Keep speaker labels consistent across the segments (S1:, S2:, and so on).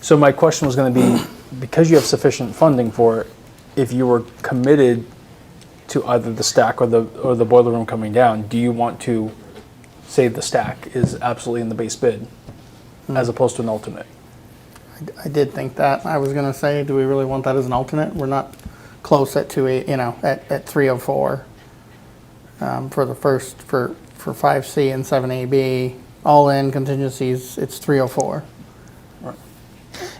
S1: So my question was going to be, because you have sufficient funding for it, if you were committed to either the stack or the, or the boiler room coming down, do you want to say the stack is absolutely in the base bid
S2: Hmm.
S1: as opposed to an alternate?
S2: I did think that. I was gonna say, do we really want that as an alternate? We're not close at two eight, you know, at, at three oh four. Um, for the first, for, for five C and seven A B, all in contingencies, it's three oh four.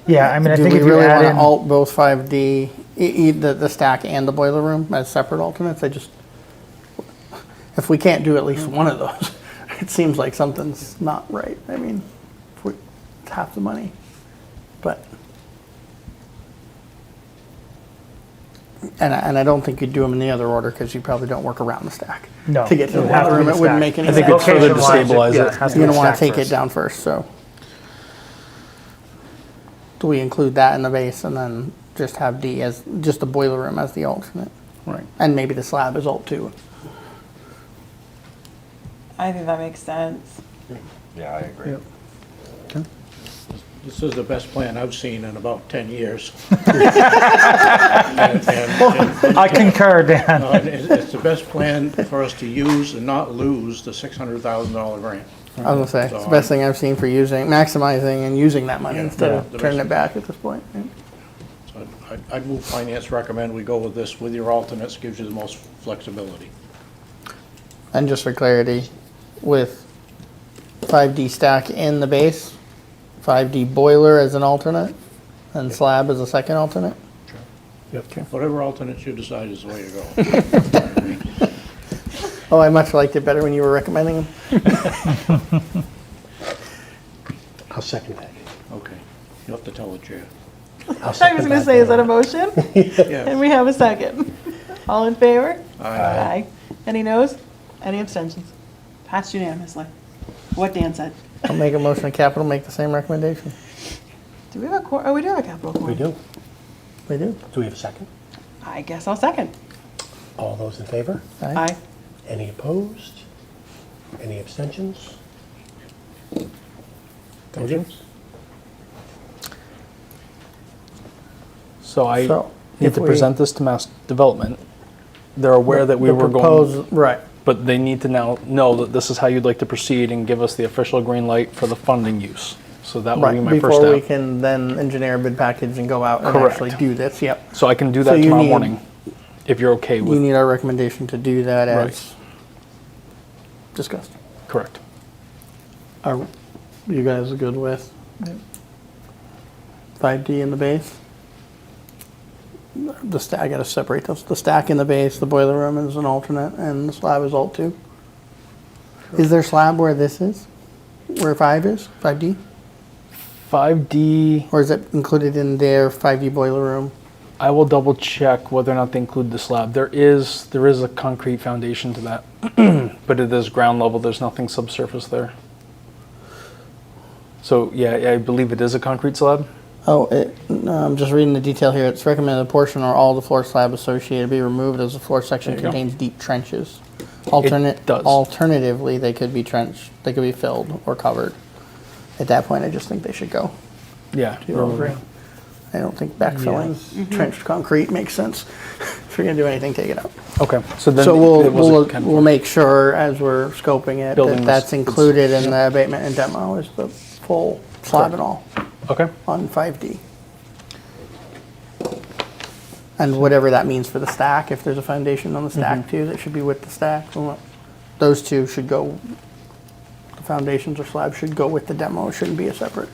S3: Yeah, I mean, I
S2: Do
S3: think
S2: we
S3: if you
S2: really
S3: add
S2: wanna
S3: in,
S2: alt both five D, e, e, the, the stack and the boiler room as separate alternates? I just, if we can't do at least one of those, it seems like something's not right. I mean, if we, it's half the money, but. And I, and I don't think you'd do them in the other order because you probably don't work around the stack.
S3: no,
S2: To get to the
S3: would have
S2: boiler
S3: be
S2: room,
S3: the
S2: it wouldn't
S3: stack.
S2: make any
S1: I think it's further
S3: Location-wise, it-
S1: destabilize
S3: yeah,
S1: it.
S3: has to
S2: You're
S3: be
S2: gonna wanna
S3: stacked
S2: take it
S3: first.
S2: down first, so. Do we include that in the base and then just have D as, just the boiler room as the alternate?
S1: Right.
S2: And maybe the slab is alt too.
S4: I think that makes sense.
S5: Yeah, I agree.
S6: This is the best plan I've seen in about 10 years. And- and-
S3: I concur, Dan.
S6: and It's it's the best plan for us to use and not lose the $600,000 grant.
S2: I was gonna say, it's the best thing I've seen for using, maximizing and using that money
S6: Yeah,
S2: instead
S6: yeah,
S2: of
S6: the
S2: turning
S6: best.
S2: it back at this point. yeah.
S6: So I'd- I'd move finance, recommend we go with this with your alternates, gives you the most flexibility.
S2: And just for clarity, with five D stack in the base, five D boiler as an alternate, and slab as a second alternate?
S6: Whatever alternates you decide is the way to go.
S2: Oh, I much liked it better when you were recommending them.
S7: I'll second that.
S6: Okay. You'll have to tell the chair.
S7: I'll
S4: I
S7: second
S4: was gonna say, is that a motion?
S6: Yeah.
S4: And we have a second. All in favor? Aye. Any noes? Any abstentions? Passed unanimously. What Dan said.
S2: I'll make a motion to capital, make the same recommendation.
S4: Do we have a quorum? Oh, we do have a capital quorum.
S7: We do.
S2: We do.
S7: Do we have a second?
S4: I guess I'll second.
S7: All those in favor?
S4: Aye.
S7: Any opposed? Any abstentions? Thank you.
S1: So I
S2: So,
S1: need
S2: if
S1: to
S2: we-
S1: present this to Mass Development. They're aware that we
S2: The
S1: were going,
S2: proposed- Right.
S1: but they need to now know that this is how you'd like to proceed and give us the official green light for the funding use. So that would be
S2: Right,
S1: my first
S2: before we
S1: step.
S2: can then engineer a bid package and go out and
S1: Correct.
S2: actually do this, yep.
S1: So I can do
S2: So
S1: that
S2: you
S1: tomorrow
S2: need-
S1: morning, if you're okay
S2: You
S1: with,
S2: need our recommendation to do that as discussed.
S1: correct.
S2: Are you guys good with five D in the base? The stack, I gotta separate those, the stack in the base, the boiler room is an alternate, and the slab is alt two. Is there slab where this is? Where five is, five D?
S1: 5D,
S2: Or is it included in their five D boiler room?
S1: I will double check whether or not they include the slab. There is, there is a concrete foundation to that, but it is ground level, there's nothing subsurface there. So, yeah, I believe it is a concrete slab.
S2: Oh, it, no, I'm just reading the detail here. It's recommended a portion or all the floor slab associated be removed as the floor section
S1: There you go.
S2: contains deep trenches. Alternate,
S1: does.
S2: alternatively, they could be trenched, they could be filled or covered. At that point, I just think they should go.
S1: Yeah.
S2: to all green. I don't think backfilling trenched concrete makes sense. If you're gonna do anything, take it out.
S1: Okay, so then
S2: So we'll,
S1: it was a
S2: we'll,
S1: kind of-
S2: we'll make sure as we're scoping it
S1: Building
S2: that
S1: was-
S2: that's included in the abatement and demo is the full slab and all
S1: Okay,
S2: on 5D. And whatever that means for the stack, if there's a foundation on the stack too, that should be with the stack. we want- Those two should go, the foundations or slabs should go with the demo, it shouldn't be a separate,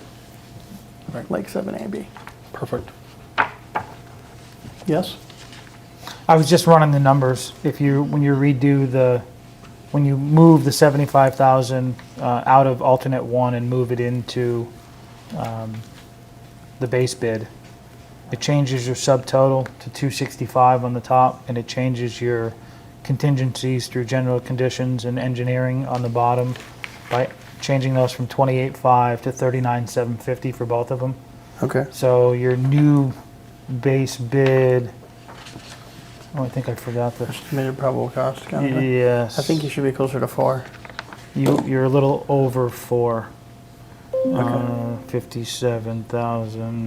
S2: like 7AB.
S1: perfect.
S2: Yes?
S3: I was just running the numbers. If you, when you redo the, when you move the 75,000 uh, out of alternate one and move it into um, the base bid, it changes your subtotal to 265 on the top, and it changes your contingencies through general conditions and engineering on the bottom by changing those from 28.5 to 39.750 for both of them.
S2: Okay.
S3: So your new base bid, oh, I think I forgot the,
S2: Estimated probable cost, kind of thing.
S3: yes.
S2: I think you should be closer to four.
S3: You, you're a little over four. Uh, fifty-seven thousand.